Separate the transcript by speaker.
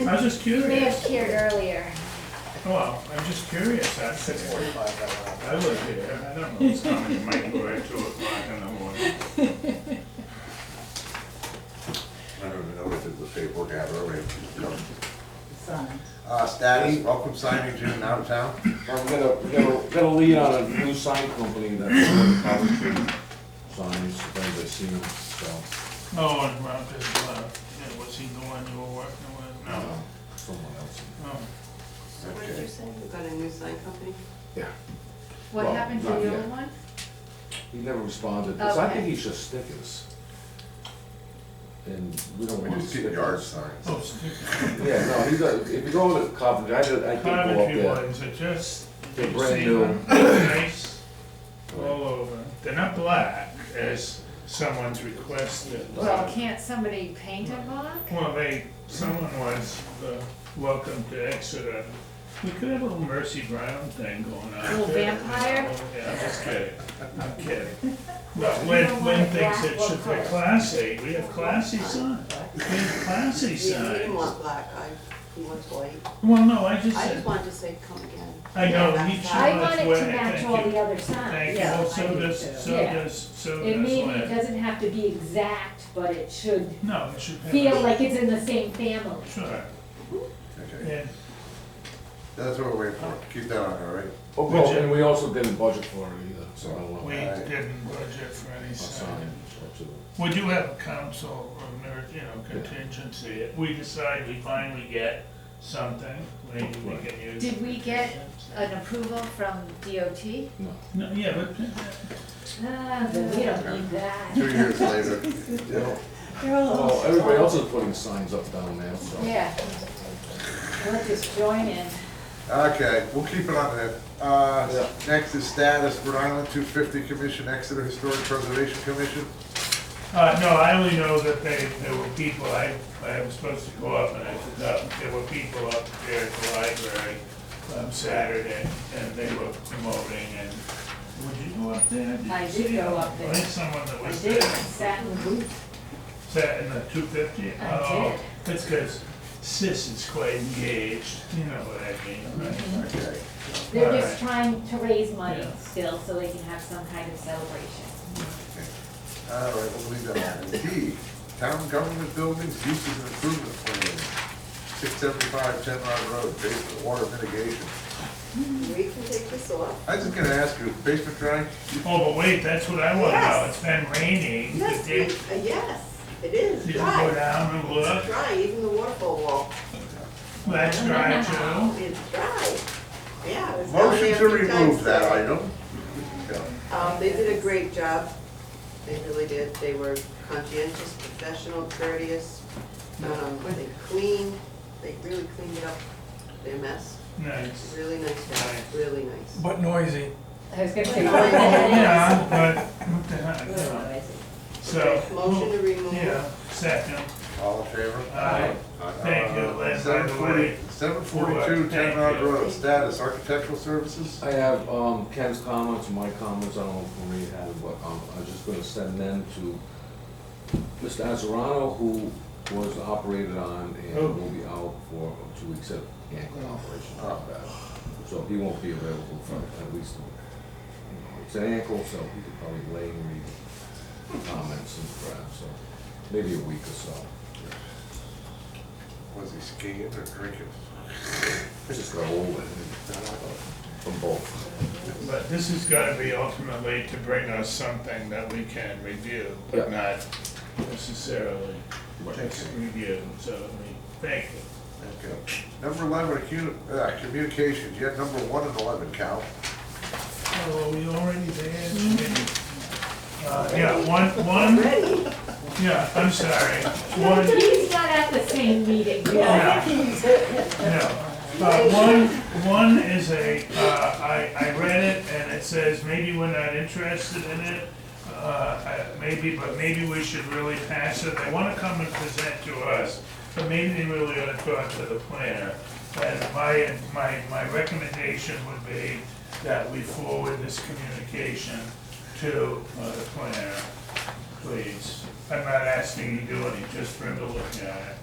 Speaker 1: I was just
Speaker 2: You may
Speaker 1: curious.
Speaker 2: have cheered earlier.
Speaker 1: Well, I'm just curious, that's
Speaker 3: Six forty-five, that one.
Speaker 1: I live here, I don't know what's coming in my door at two o'clock in the morning.
Speaker 4: I don't even know if it was paperwork out earlier.
Speaker 5: sign.
Speaker 4: Uh, status, welcome signing to out of town.
Speaker 6: I'm gonna, gonna, gonna lead on a new sign company that's going to cover signs, if anybody's seen them, so.
Speaker 1: Oh, and Rob is, uh, yeah, was he the one you were working with?
Speaker 4: Oh.
Speaker 6: uh,
Speaker 1: No,
Speaker 6: Someone else.
Speaker 1: no.
Speaker 7: So what did you say? You got a new sign company?
Speaker 6: Yeah.
Speaker 5: What
Speaker 6: Well,
Speaker 5: happened to
Speaker 6: not
Speaker 5: the
Speaker 6: yet.
Speaker 5: old one?
Speaker 6: He never responded, because I think
Speaker 5: Okay.
Speaker 6: he's just stickers. And we don't
Speaker 4: We
Speaker 6: want
Speaker 4: just get yard
Speaker 6: stickers.
Speaker 4: signs.
Speaker 1: Oh, sticky.
Speaker 6: Yeah, no, he does, if you go to Coventry, I did, I did go up
Speaker 1: Coventry
Speaker 6: there.
Speaker 1: ones are just,
Speaker 6: They're
Speaker 1: you
Speaker 6: brand
Speaker 1: see
Speaker 6: new.
Speaker 1: them, they're nice, all over. They're not black, as someone's requested.
Speaker 5: Well, can't somebody paint a block?
Speaker 1: Well, they, someone was, uh, welcome to Exeter. We could have a little Mercy Brown thing going on.
Speaker 5: Little
Speaker 1: there.
Speaker 5: vampire?
Speaker 1: Yeah, I'm just kidding, I'm kidding. But
Speaker 5: You
Speaker 1: Lynn,
Speaker 5: don't
Speaker 1: Lynn
Speaker 5: want
Speaker 1: thinks
Speaker 5: black
Speaker 1: it should be
Speaker 5: workers.
Speaker 1: classy, we have classy signs, we have classy
Speaker 7: You didn't
Speaker 1: signs.
Speaker 7: want black, I, you want white.
Speaker 1: Well, no, I just
Speaker 7: I just
Speaker 1: said,
Speaker 7: wanted to say, come again.
Speaker 1: I know,
Speaker 7: Yeah,
Speaker 1: he
Speaker 7: that's
Speaker 1: should-
Speaker 7: that.
Speaker 5: I want it
Speaker 1: Well,
Speaker 5: to match
Speaker 1: thank
Speaker 5: all
Speaker 1: you.
Speaker 5: the other signs.
Speaker 1: thank you,
Speaker 5: Yeah,
Speaker 1: well,
Speaker 5: I
Speaker 1: so
Speaker 5: do
Speaker 1: does,
Speaker 5: too.
Speaker 1: so
Speaker 5: Yeah.
Speaker 1: does, so does
Speaker 5: It
Speaker 1: Lynn.
Speaker 5: maybe doesn't have to be exact, but it should
Speaker 1: No, it should have.
Speaker 5: feel like it's in the same family.
Speaker 1: Sure,
Speaker 4: Okay,
Speaker 1: yeah,
Speaker 4: that's what we're waiting for. Keep that on, all right?
Speaker 6: Oh,
Speaker 1: Would
Speaker 6: well,
Speaker 1: you-
Speaker 6: and we also didn't budget for it either, so I don't
Speaker 1: we
Speaker 6: know.
Speaker 4: Alright.
Speaker 1: didn't budget for any
Speaker 6: A
Speaker 1: sign.
Speaker 6: sign, or two.
Speaker 1: Would you have council or, merit, you know, contingency, if we decide we finally get something, maybe we can use.
Speaker 5: Did we get an approval from DOT?
Speaker 6: No.
Speaker 1: No, yeah, but,
Speaker 5: Ah, but we don't need that.
Speaker 4: Two years later. yeah.
Speaker 6: Well, everybody else is putting signs up down there, so.
Speaker 5: Yeah. We'll just join in.
Speaker 4: Okay, we'll keep it on there. Uh,
Speaker 6: Yeah.
Speaker 4: next is status, Rhode Island two fifty commission, Exeter Historic Preservation Commission.
Speaker 1: uh, no, I only know that they, there were people, I, I was supposed to go up and I forgot, there were people up there at the library on Saturday, and they were promoting, and, would you go up there? you
Speaker 5: I did
Speaker 1: see
Speaker 5: go
Speaker 1: them?
Speaker 5: up there.
Speaker 1: I think someone that
Speaker 5: I
Speaker 1: was
Speaker 5: did, I
Speaker 1: there.
Speaker 5: sat in the booth.
Speaker 1: Is that in the two fifty?
Speaker 5: I
Speaker 1: That's because Sis is quite engaged, you know what I mean, right?
Speaker 7: Mm-hmm.
Speaker 4: Okay,
Speaker 5: They're just trying to raise money
Speaker 1: Yeah.
Speaker 5: still, so they can have some kind of celebration.
Speaker 4: all right, we'll leave that on. D, town government buildings, uses and improvement plan. Six seventy-five Ten Rod Road, basement water mitigation.
Speaker 7: We can take this off.
Speaker 4: I was just gonna ask you, is basement dry?
Speaker 1: Oh, but wait, that's what I want to know,
Speaker 7: Yes.
Speaker 1: it's been raining,
Speaker 7: Yes,
Speaker 1: did you, did
Speaker 7: we- uh, yes, it is
Speaker 1: you go
Speaker 7: dry.
Speaker 1: down and
Speaker 7: It's
Speaker 1: look,
Speaker 7: dry, even the waterfall wall,
Speaker 1: that's dry too?
Speaker 7: it's dry. Yeah. it was down
Speaker 4: Motion
Speaker 7: there
Speaker 4: to
Speaker 7: a few times
Speaker 4: remove that
Speaker 7: today.
Speaker 4: item. Yeah.
Speaker 7: Um, they did a great job. They really did. They were conscientious, professional, courteous. Um, they cleaned, they really cleaned up their mess.
Speaker 1: Nice.
Speaker 7: Really nice job, really nice.
Speaker 8: But noisy.
Speaker 5: I was gonna say.
Speaker 1: Oh, Yeah, but, what the heck, you know. so.
Speaker 7: Okay, Motion to remove.
Speaker 1: Yeah, second,
Speaker 4: All in favor? Uh,
Speaker 1: Aye. Thank you, Lynn, by the way.
Speaker 4: Seven forty-two Ten Rod Road, status, architectural services?
Speaker 6: I have um, Ken's comments, my comments, I don't know if Maria had it, but um, I was just gonna send them to Mr. Azarano, who was operated on and
Speaker 1: Oh.
Speaker 6: will be out for two weeks of ankle operation.
Speaker 4: Oh.
Speaker 6: So he won't be available for at least, you know, it's an ankle, so he could probably lay and read comments and perhaps, so maybe a week or so.
Speaker 4: Was he skiing or drinking?
Speaker 6: I just got old, I think, from both.
Speaker 1: but this is gonna be ultimately to bring us something that we can review, but not necessarily just review, so, I mean, thank you.
Speaker 4: Okay. Number eleven, accu- uh, communication, you had number one and eleven, Cal.
Speaker 1: Oh, we already there? Uh, yeah, one, one,
Speaker 7: Ready?
Speaker 1: yeah, I'm sorry, one,
Speaker 5: He's not at the same meeting.
Speaker 1: yeah, no. Uh, one, one is a, uh, I, I read it and it says, maybe we're not interested in it. Uh, I- maybe, but maybe we should really pass it, they wanna come and present to us, but maybe they really ought to talk to the planner. And my, my, my recommendation would be that we forward this communication to uh, the planner, please. I'm not asking you to do any, just for him to look at it.